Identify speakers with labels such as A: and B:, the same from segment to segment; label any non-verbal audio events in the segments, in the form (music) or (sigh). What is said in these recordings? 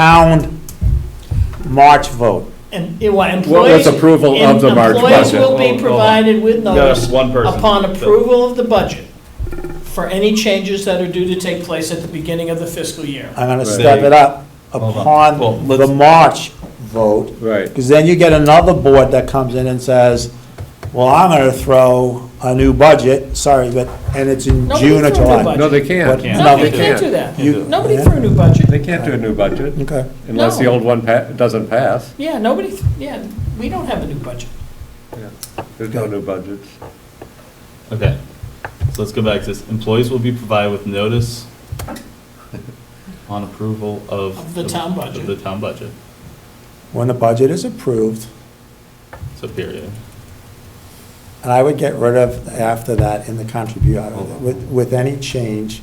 A: town March vote.
B: And, it- well,
C: Well,
B: employees.
C: that's approval of the March
B: Employees
C: budget.
B: will be provided with notice
D: No, one person.
B: upon approval of the budget for any changes that are due to take place at the beginning of the fiscal year.
A: I'm gonna
C: Right.
A: step it up
D: Hold on. Well,
A: upon the
D: let's-
A: March vote.
C: Right.
A: Because then you get another board that comes in and says, well, I'm gonna throw a new budget, sorry, but, and it's in
B: Nobody
A: June or
B: threw a
A: July.
B: budget.
C: No, they can't.
A: Can't.
B: No,
A: No,
B: you
A: they
B: can't do that.
A: You-
B: Nobody
A: Yeah.
B: threw a new budget.
C: They can't do a new budget
A: Okay,
C: unless the
B: No.
C: old one pa- doesn't pass.
B: Yeah, nobody, th- yeah, we don't have a new budget.
C: There's no new budgets.
D: Okay, so let's go back to this. Employees will be provided with notice on approval of.
B: Of the town budget.
D: Of the town budget,
A: when the budget is approved,
D: so period.
A: and I would get rid of after that in the contribute, with, with any change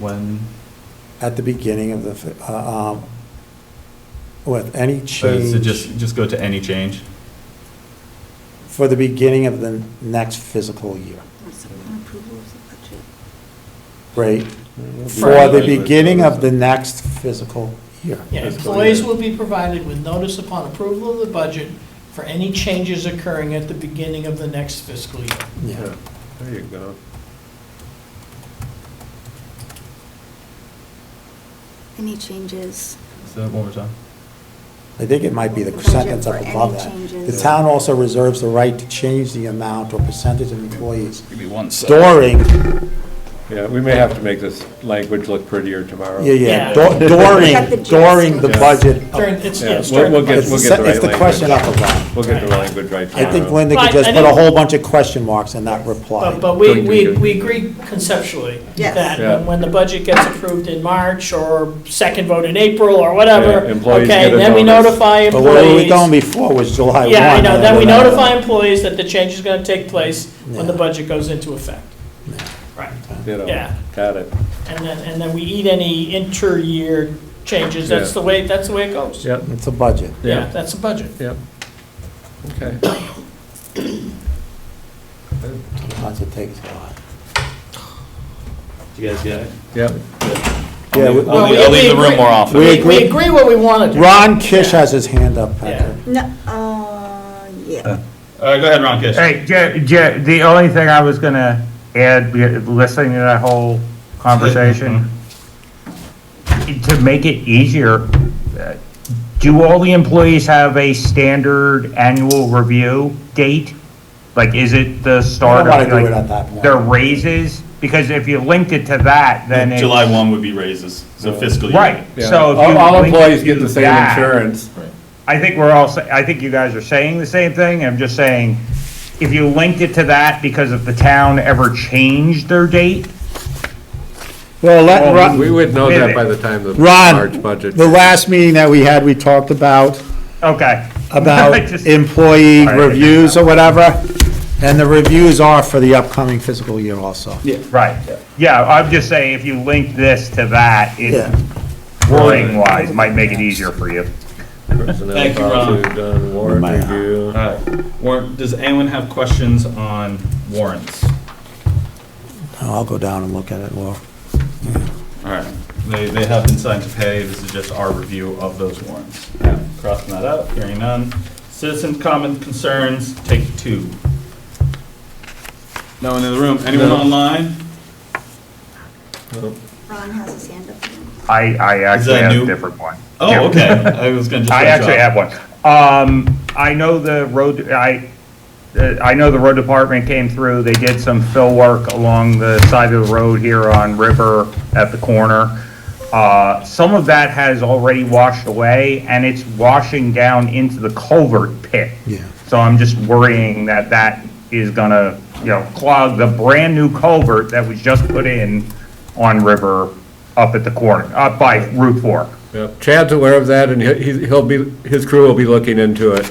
D: When,
A: at the beginning of the, fi- uh, um, with any
D: so
A: change.
D: so just, just go to any change?
A: for the beginning of the next fiscal year,
E: approval of the budget.
A: right? For
B: Right.
A: the beginning of the next fiscal year.
B: Yeah,
C: Fiscal
B: employees
C: year.
B: will be provided with notice upon approval of the budget for any changes occurring at the beginning of the next fiscal year.
A: Yeah.
C: Yeah, There you go.
E: Any changes?
D: Say that one more time.
A: I think it might be the
E: Budget
A: sentence up
E: for any
A: above that. The
E: changes.
A: town also reserves the right to change the amount or percentage of employees
D: Give me one
A: during,
C: Yeah, we may have to make this language look prettier tomorrow.
A: yeah, yeah,
B: Yeah.
A: du-
E: Cut the
A: during,
E: gist.
A: during the
C: Yeah.
A: budget. of-
B: During, it's,
C: Yeah,
B: it's
C: we'll,
B: during.
C: we'll get,
A: It's
C: we'll
A: the
C: get
A: se-
C: the
A: it's
C: right
A: the question
C: language.
A: up above.
C: (laughs) We'll get the language right
A: I think
C: tomorrow.
A: Linda
B: Right,
A: could just
B: I
A: put a
B: think-
A: whole bunch of question marks in that reply.
B: But, but we,
C: During-
B: we,
C: during-
B: we agree conceptually
E: Yes.
B: that
C: Yeah.
B: when the budget gets approved in March or second vote in April or whatever,
C: Yeah, employees
B: okay,
C: get a
B: then we
C: notice.
B: notify
A: But where we were
B: employees.
A: going before was July 1.
B: Yeah, I know, then we
A: and then-
B: notify employees that the change is gonna take place when the
A: Yeah.
B: budget goes into effect. Right,
C: You know,
B: yeah.
C: Got it.
B: and then, and then we eat any inter-year changes, that's
C: Yeah.
B: the way, that's the way it goes.
C: Yep,
A: It's a budget.
B: Yeah, that's a budget.
C: yep. Okay.
A: Sometimes it takes a lot.
D: You guys get it?
A: Yeah,
C: Yep.
A: we-
B: Well,
D: I'll leave-
B: we-
D: I'll
B: we
D: leave the room more
B: agree-
D: often.
A: We
B: We, we
A: agree-
B: agree what we wanna do.
A: Ron Kish has his hand up,
B: Yeah.
A: Patrick.
E: No, uh, yeah.
D: All right, Uh, go ahead, Ron Kish.
F: Hey, Jer, Jer, the only thing I was gonna add, be- listening to that whole conversation, to make it easier, uh, do all the employees have a standard annual review date? Like, is it the start
A: wanna
F: of,
A: do it at that
F: like,
A: point.
F: their raises? Because if you linked it to that, then it's.
D: July one would be raises, so fiscal year.
F: Right,
C: Yeah.
F: so if
C: All
F: you.
C: all
F: linked
C: employees
F: it
C: get
F: to
C: the same
F: that,
C: insurance.
F: I think we're all, sa- I think you guys are saying the same thing, I'm just saying, if you linked it to that because if the town ever changed their date,
A: Well, let,
F: Well,
C: We
A: Ron,
C: would know
F: Wait a
C: that
F: minute.
C: by the time the March
A: Ron,
C: budget.
A: the last meeting that we had, we talked (laughs) about,
F: okay. (laughs)
A: about
F: Just-
A: employee
F: All right.
A: reviews or whatever, and the reviews are for the upcoming fiscal year also.
F: Right, yeah, I'm just saying, if you link this to that, it,
A: Yeah.
F: wording wise, might make it easier for you.
C: Personnel
D: Thank you, Ron.
C: policy done, warrant
A: Bye.
C: review.
D: All right, warrant, does anyone have questions on warrants?
A: I'll go down and look at it, Laura.
D: All right, they, they have been signed to pay, this is just our review of those warrants. Crossing that out, hearing none. Citizen comment concerns, take two. No one in the room, anyone
C: No.
D: online?
E: Ron has his hand up.
F: I, I actually
D: that
F: have
D: new?
F: a different one. Yeah.
D: Oh, okay, I was gonna just.
F: (laughs)
D: let
F: I
D: you
F: actually
D: off.
F: have one. Um, I know the road, I, uh, I know the road department came through, they did some fill work along the side of the road here on River at the corner. Uh, some of that has already washed away, and it's washing down into the culvert pit.
A: Yeah.
F: So I'm just worrying that that is gonna, you know, clog the brand-new culvert that was just put in on River up at the corner, up by Route 4.
C: Yep. Chad's aware of that, and he- he'll be, his crew will be looking into it.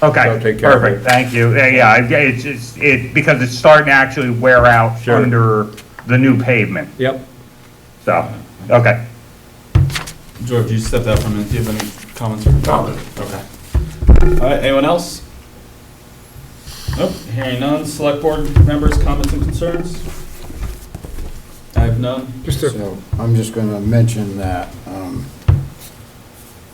C: So
F: Okay,
C: take care of
F: perfect,
C: it.
F: thank you. Yeah, Yeah, I- it's, it's, it, because it's starting to actually wear out
C: Sure.
F: under the new pavement,
C: Yep.
F: so, okay.
D: George, you stepped out for a minute, do you have any comments or? Okay. All right, anyone else? Nope, hearing none, select board members' comments and concerns? I have none.
G: So I'm just going to mention that um,